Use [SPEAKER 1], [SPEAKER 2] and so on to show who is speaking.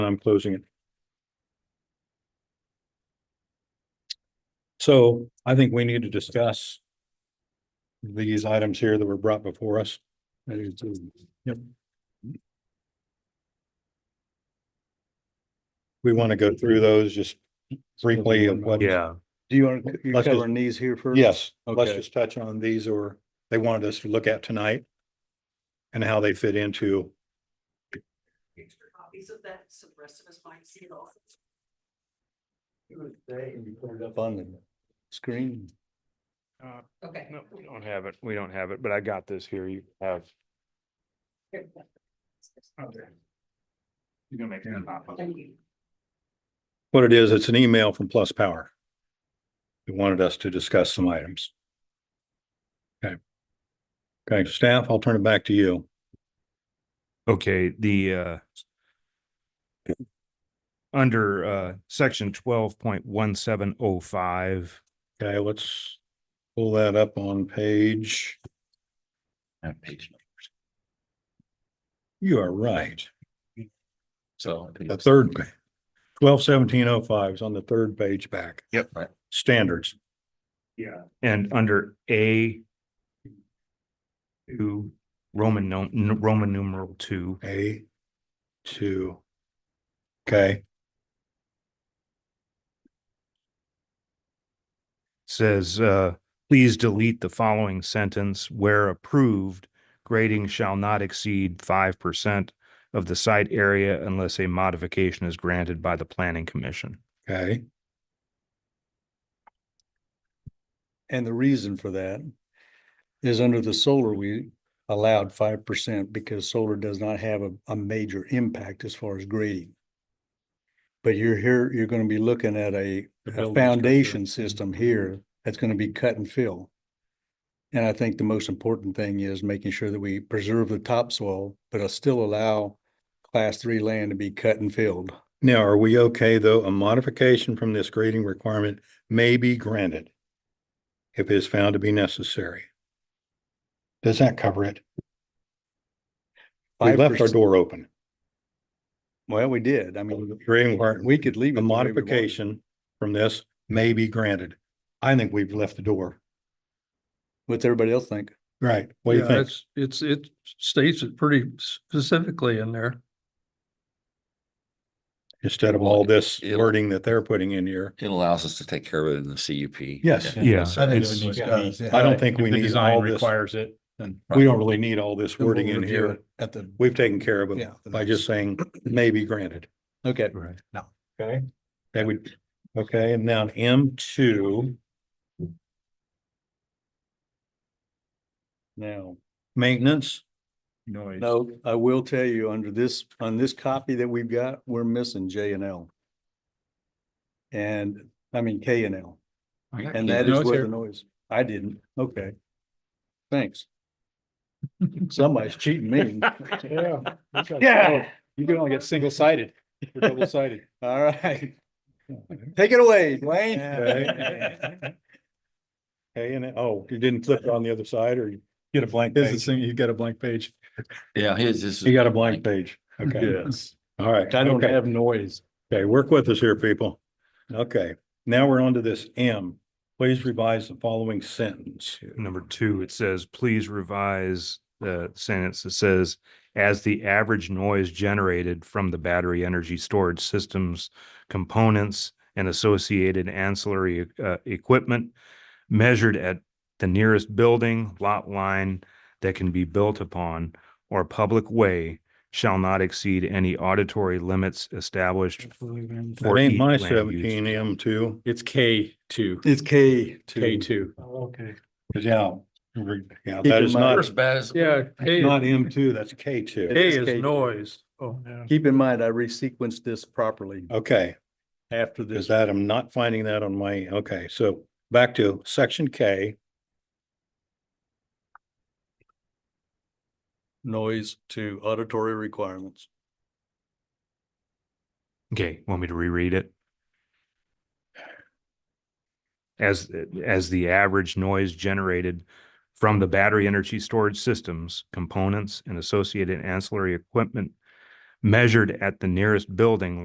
[SPEAKER 1] I'm closing it. So I think we need to discuss these items here that were brought before us. I do too. Yep. We want to go through those just briefly of what.
[SPEAKER 2] Yeah,
[SPEAKER 3] Do you want, to you're
[SPEAKER 1] Let's just-
[SPEAKER 3] covering these here first?
[SPEAKER 1] Yes, let's
[SPEAKER 3] Okay.
[SPEAKER 1] just touch on these or they wanted us to look at tonight and how they fit into,
[SPEAKER 4] extra copies of that, so the rest of us might see it all.
[SPEAKER 3] Up on the screen.
[SPEAKER 4] Okay.
[SPEAKER 2] no, we don't have it. We don't have it, but I got this here. You have.
[SPEAKER 4] Here.
[SPEAKER 2] You're gonna make
[SPEAKER 1] a
[SPEAKER 2] pop up.
[SPEAKER 4] Thank you.
[SPEAKER 1] what it is, it's an email from Plus Power. They wanted us to discuss some items. Okay. Okay, staff, I'll turn it back to you.
[SPEAKER 5] Okay, the uh under uh section twelve point one seven oh five,
[SPEAKER 1] Okay, let's pull that up on page.
[SPEAKER 3] That page. number.
[SPEAKER 1] You are right.
[SPEAKER 3] So.
[SPEAKER 1] The third, twelve seventeen oh five is on the third page back.
[SPEAKER 3] Yep. Right.
[SPEAKER 1] Standards.
[SPEAKER 2] Yeah.
[SPEAKER 5] and under A two Roman no, n- Roman numeral two,
[SPEAKER 1] A, two. Okay,
[SPEAKER 5] says, uh, please delete the following sentence where approved grading shall not exceed five percent of the site area unless a modification is granted by the planning commission.
[SPEAKER 1] okay,
[SPEAKER 3] And the reason for that is under the solar, we allowed five percent because solar does not have a, a major impact as far as grading. But you're here, you're gonna be looking at a,
[SPEAKER 1] The
[SPEAKER 3] a
[SPEAKER 1] building
[SPEAKER 3] foundation
[SPEAKER 1] structure. Mm-hmm.
[SPEAKER 3] system here that's gonna be cut and fill. And I think the most important thing is making sure that we preserve the topsoil, but still allow class three land to be cut and filled.
[SPEAKER 1] now are we okay though? A modification from this grading requirement may be granted. If it is found to be necessary. Does that cover it? We left our
[SPEAKER 3] 5%.
[SPEAKER 1] door open.
[SPEAKER 3] Well, we did. I mean,
[SPEAKER 1] Grading requirement.
[SPEAKER 3] we could leave it
[SPEAKER 1] A
[SPEAKER 3] the way we wanted.
[SPEAKER 1] modification from this may be granted. I think we've left the door.
[SPEAKER 3] What's everybody else think?
[SPEAKER 1] Right. What do you
[SPEAKER 6] Yeah,
[SPEAKER 1] think?
[SPEAKER 6] it's- It's, it states it pretty specifically in there.
[SPEAKER 1] Instead of all this
[SPEAKER 7] It'll-
[SPEAKER 1] wording that they're putting in here.
[SPEAKER 7] It allows us to take care of it in the CUP.
[SPEAKER 1] Yes.
[SPEAKER 7] Yeah.
[SPEAKER 5] Yeah.
[SPEAKER 2] I
[SPEAKER 5] it's-
[SPEAKER 1] I don't think we need all this-
[SPEAKER 2] Requires it, then.
[SPEAKER 1] We don't really need all this
[SPEAKER 3] Then we'll
[SPEAKER 1] wording in
[SPEAKER 3] review
[SPEAKER 1] here.
[SPEAKER 3] it At the,
[SPEAKER 1] We've taken care of it
[SPEAKER 3] Yeah, the
[SPEAKER 1] by
[SPEAKER 3] next-
[SPEAKER 1] just saying may be granted.
[SPEAKER 3] okay.
[SPEAKER 5] Right.
[SPEAKER 1] Okay. That would, okay, and now M two,
[SPEAKER 3] Now,
[SPEAKER 1] maintenance.
[SPEAKER 2] Noise.
[SPEAKER 3] no, I will tell you, under this, on this copy that we've got, we're missing J and L. And, I mean, K and L, and that is where the noise, I didn't, okay. Thanks. Somebody's cheating me. Yeah.
[SPEAKER 1] Oh,
[SPEAKER 2] You can only get single sided, double sided.
[SPEAKER 3] All right. Take it away,
[SPEAKER 1] Okay.
[SPEAKER 3] Dwayne.
[SPEAKER 1] Okay, and, oh, you didn't flip it on the other side or you get a blank
[SPEAKER 2] This is
[SPEAKER 1] page?
[SPEAKER 2] thing, you got a blank page.
[SPEAKER 7] Yeah, his, this
[SPEAKER 1] You
[SPEAKER 7] is,
[SPEAKER 1] got a blank page. Okay,
[SPEAKER 2] Yes.
[SPEAKER 1] all right.
[SPEAKER 2] I don't
[SPEAKER 1] okay.
[SPEAKER 2] have noise.
[SPEAKER 1] Okay, work with us here, people. Okay, now we're on to this M. Please revise the following sentence.
[SPEAKER 5] number two, it says, please revise the sentence that says, as the average noise generated from the battery energy storage systems, components, and associated ancillary uh, equipment measured at the nearest building, lot line that can be built upon, or public way shall not exceed any auditory limits established
[SPEAKER 1] That
[SPEAKER 5] for
[SPEAKER 1] ain't
[SPEAKER 5] each
[SPEAKER 1] my
[SPEAKER 5] land use.
[SPEAKER 1] seventeen M two.
[SPEAKER 2] It's K two,
[SPEAKER 3] It's K
[SPEAKER 2] K
[SPEAKER 3] two.
[SPEAKER 2] two.
[SPEAKER 6] Oh, Okay.
[SPEAKER 1] Yeah. Yeah,
[SPEAKER 3] Keep
[SPEAKER 1] that
[SPEAKER 3] in
[SPEAKER 1] is
[SPEAKER 3] mind-
[SPEAKER 7] we're
[SPEAKER 1] not,
[SPEAKER 7] as bad as.
[SPEAKER 6] Yeah, K,
[SPEAKER 1] not M two, that's K two.
[SPEAKER 6] K
[SPEAKER 3] is K.
[SPEAKER 6] is noise. Oh, yeah.
[SPEAKER 3] Keep in mind, I resequenced this properly
[SPEAKER 2] Oh,
[SPEAKER 1] Okay,
[SPEAKER 3] after
[SPEAKER 1] is
[SPEAKER 3] this.
[SPEAKER 1] that, I'm not finding that on my, okay, so back to section K,
[SPEAKER 3] noise to auditory requirements.
[SPEAKER 5] Okay, want me to reread it? As, as the average noise generated from the battery energy storage systems, components, and associated ancillary equipment measured at the nearest building,